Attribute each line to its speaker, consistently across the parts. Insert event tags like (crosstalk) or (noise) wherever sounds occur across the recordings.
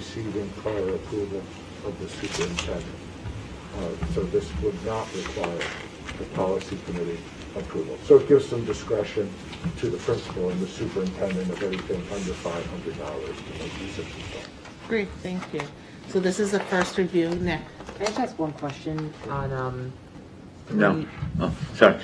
Speaker 1: receiving prior approval of the superintendent. Uh, So this would not require the policy committee approval. So it gives some discretion to the principal and the superintendent of anything under five hundred dollars to make use of this fund.
Speaker 2: Great, thank you. So this is the first review, Nick.
Speaker 3: Can I just ask one question on, um,
Speaker 4: No. Oh, sorry.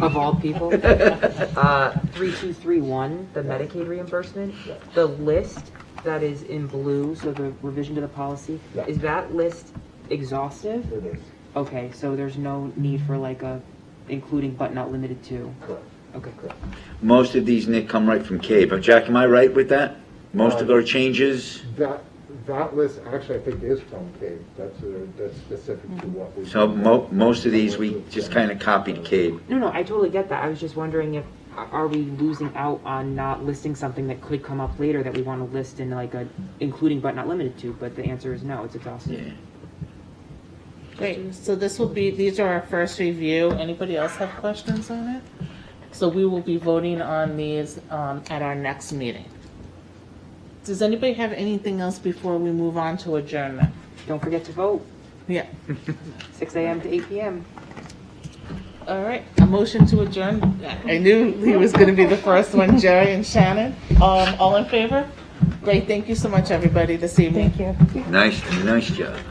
Speaker 3: of all
Speaker 4: (laughs)
Speaker 3: people? Uh, 3231, the Medicaid reimbursement, the list that is in blue, so the revision to the policy,
Speaker 1: Yeah.
Speaker 3: is that list exhaustive?
Speaker 1: It is,
Speaker 3: Okay, so there's no need for like a including but not limited to?
Speaker 1: correct,
Speaker 3: Okay.
Speaker 1: correct.
Speaker 4: Most of these, Nick, come right from Cape. Uh, Jack, am I right with that? Most of our changes?
Speaker 1: That, that list, actually, I think is from Cave, that's, uh, that's specific to what we.
Speaker 4: So mo- most of these, we just kind of copied Cape.
Speaker 3: No, no, I totally get that. I was just wondering if, are are we losing out on not listing something that could come up later that we want to list in like a including but not limited to? But the answer is no, it's exhaustive.
Speaker 4: Yeah.
Speaker 2: Great, so this will be, these are our first review. Anybody else have questions on it? So we will be voting on these um, at our next meeting. Does anybody have anything else before we move on to adjournment?
Speaker 3: Don't forget to vote,
Speaker 2: Yeah,
Speaker 3: 6 AM to 8 PM.
Speaker 2: all right, a motion to adjourn. I knew he was gonna be the first one, Jerry and Shannon. Um, all in favor? Great, thank you so much, everybody, this evening. Thank you.
Speaker 4: Nice, nice job.